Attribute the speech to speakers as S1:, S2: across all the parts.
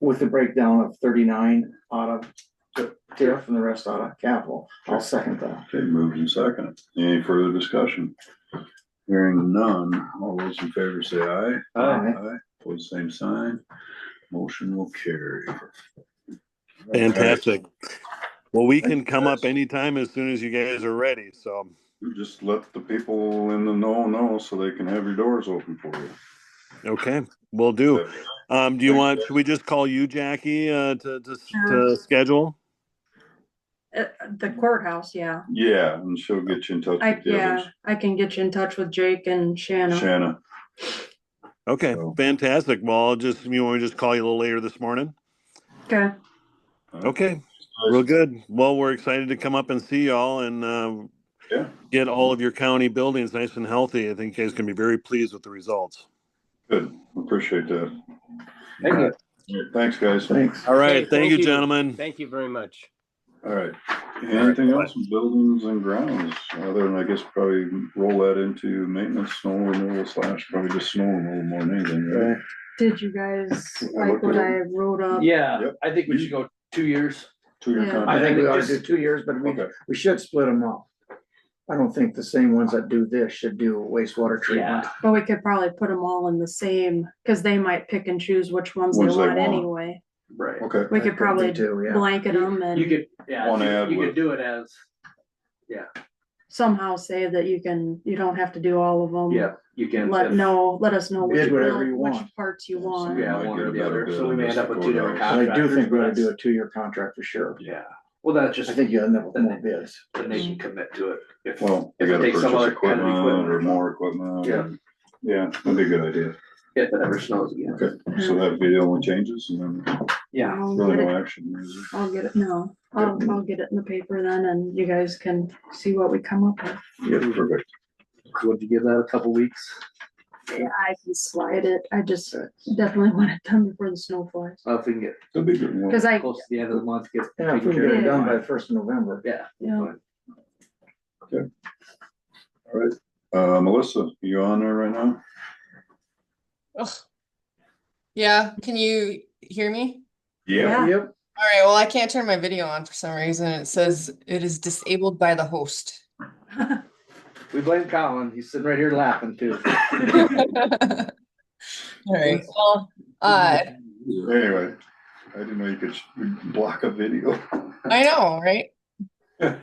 S1: with the breakdown of thirty-nine out of TIF and the rest out of capital. I'll second that.
S2: Okay, moved and seconded. Any further discussion? Hearing none, all those in favor say aye.
S1: Aye.
S2: Aye, pose same sign. Motion will carry.
S3: Fantastic. Well, we can come up anytime as soon as you guys are ready, so.
S2: Just let the people in the know know so they can have your doors open for you.
S3: Okay, we will do. Um, do you want, should we just call you, Jackie, uh, to, to, to schedule?
S4: Uh, the courthouse, yeah.
S2: Yeah, and she'll get you in touch
S4: I,
S2: with the
S4: yeah,
S2: others.
S4: I can get you in touch with Jake and Shannon.
S2: Shanna,
S3: Okay,
S2: So-
S3: fantastic. Well, I'll just, you want me to just call you a little later this morning?
S4: Okay,
S3: Okay, real good. Well, we're excited to come up and see y'all and, um,
S2: Yeah.
S3: get all of your county buildings nice and healthy. I think you guys can be very pleased with the results.
S2: good. Appreciate that.
S5: Thank you.
S2: Thanks, guys.
S1: Thanks.
S3: All right, thank
S5: thank
S3: you,
S5: you.
S3: gentlemen.
S5: Thank you very much.
S2: All right. Anything else in buildings and grounds, other than I guess probably roll that into maintenance, snow removal slash, probably just snow removal more than anything, right?
S4: did you guys
S2: I
S4: like
S2: looked
S4: what
S2: at
S4: I wrote up?
S5: Yeah,
S2: Yep.
S5: I think we should go two years.
S2: Two-year
S4: Yeah.
S1: I
S2: contract.
S1: think we ought to
S5: Just-
S1: do two years, but we,
S2: Okay,
S1: we should split them up. I don't think the same ones that do this should do wastewater treatment.
S4: But we could probably put them all in the same, cause they might pick and choose which ones they
S2: Ones they
S4: want
S2: want.
S4: anyway.
S5: Right.
S2: okay.
S4: We
S1: I
S4: could
S1: think
S4: probably
S1: Do, yeah.
S4: blanket them
S5: You
S4: and
S5: could, yeah,
S2: One
S5: you
S2: ad
S5: could- you
S2: with-
S5: could do it as,
S4: somehow say that you can, you don't have to do all of them.
S5: yeah, you can.
S4: Let know, let us know which,
S1: Bid whatever you
S4: which
S1: want.
S4: parts you want.
S5: Yeah,
S2: Might
S5: one
S2: get
S5: or
S2: a
S5: the
S2: better
S5: other,
S2: bid
S5: so we
S2: on
S5: may
S2: this
S5: end up with
S2: than
S5: two different
S2: $4.
S1: But I do
S5: contractors,
S1: think we
S5: but
S1: ought to do a
S5: that's-
S1: two-year contract for sure.
S5: Yeah, well, that's just,
S1: I think you end up with more bids.
S5: then they can commit to it. If
S2: Well, they
S5: If it
S2: gotta
S5: takes some
S2: purchase
S5: other kind of
S2: equipment
S5: equipment.
S2: or more equipment.
S5: Yeah.
S2: and- Yeah, that'd be a good idea.
S5: if it ever snows again.
S2: Okay, so
S4: Mm-hmm.
S2: that'd be the only changes and then
S5: Yeah,
S4: I'll
S2: really
S4: get
S2: no
S4: it-
S2: action. is it?
S4: I'll get it, no, I'll, I'll get it in the paper then and you guys can see what we come up with.
S2: Yeah, perfect.
S5: would you give that a couple weeks?
S4: Yeah, I can slide it. I just definitely want it done before the snow flies.
S5: Well, Uh, if we can get
S2: That'd be good. Well,
S4: Cause I,
S5: close to the end of the month, get.
S1: Yeah, if we can
S5: taken
S1: get it
S5: care of.
S1: done by the first of November.
S5: Yeah.
S4: you know,
S2: Uh, Melissa, you on there right now?
S6: Ugh. Yeah, can you hear me?
S4: Yeah.
S1: Yep.
S6: All right, well, I can't turn my video on for some reason. It says it is disabled by the host.
S5: We blame Colin, he's sitting right here laughing too.
S6: All right, well, uh,
S2: Anyway, I didn't know you could sh- block a video.
S6: I know, right?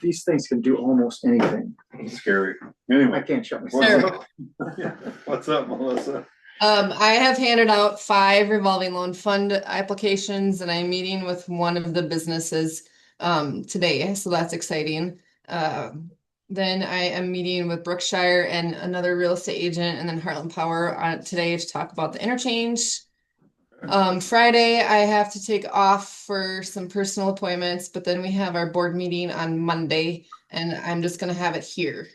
S1: These things can do almost anything.
S2: Scary.
S1: I
S2: Anyway,
S1: can't shut
S2: What's
S1: myself
S6: Sure.
S1: up.
S2: up? what's up, Melissa?
S6: Um, I have handed out five revolving loan fund applications and I'm meeting with one of the businesses um today, so that's exciting. Um, then I am meeting with Brookshire and another real estate agent and then Heartland Power on today to talk about the interchange. Um, Friday, I have to take off for some personal appointments, but then we have our board meeting on Monday and I'm just gonna have it here.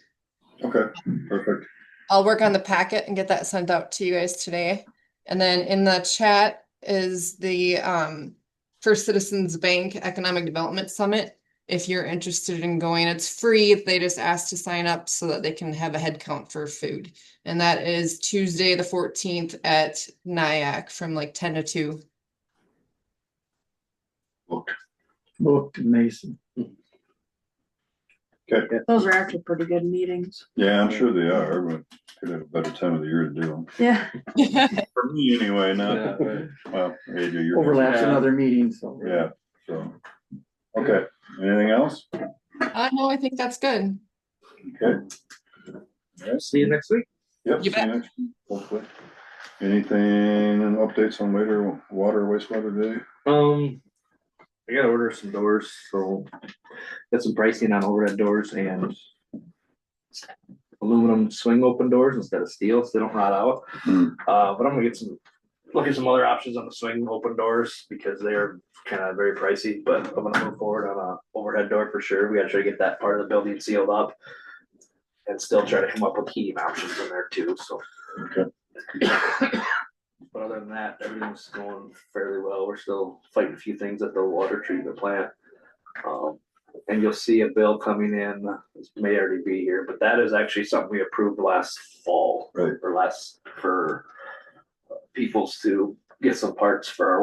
S2: Okay, perfect.
S6: I'll work on the packet and get that sent out to you guys today. And then in the chat is the um First Citizens Bank Economic Development Summit. If you're interested in going, it's free. They just asked to sign up so that they can have a head count for food. And that is Tuesday, the fourteenth at NIAC from like ten to two.
S1: Booked Mason.
S4: those are actually pretty good meetings.
S2: Yeah, I'm sure they are, but could have a better time of the year to do them.
S4: Yeah,
S2: For me anyway,
S5: Yeah,
S2: not,
S5: right.
S2: well, AJ, you're.
S1: Overlaps
S5: Yeah.
S1: another meeting, so.
S2: Yeah, so, okay, anything else?
S6: Uh, no, I think that's good.
S2: Okay.
S5: See you next week.
S2: Yep.
S6: You
S2: see
S6: bet.
S2: next week, Hopefully. Anything, updates on later water, wastewater day?
S5: Um, I gotta order some doors, so got some pricing on overhead doors and aluminum swing open doors instead of steel, so they don't rot out.
S2: Hmm.
S5: Uh, but I'm gonna get some, look at some other options on the swing open doors because they're kind of very pricey, but I'm gonna move forward on a overhead door for sure. We gotta try to get that part of the building sealed up and still try to come up with heating options in there too, so.
S2: Okay.
S5: But other than that, everything's going fairly well. We're still fighting a few things at the water treatment plant. Um, and you'll see a bill coming in, this may already be here, but that is actually something we approved last fall.
S2: Right.
S5: Or last, for peoples to get some parts for our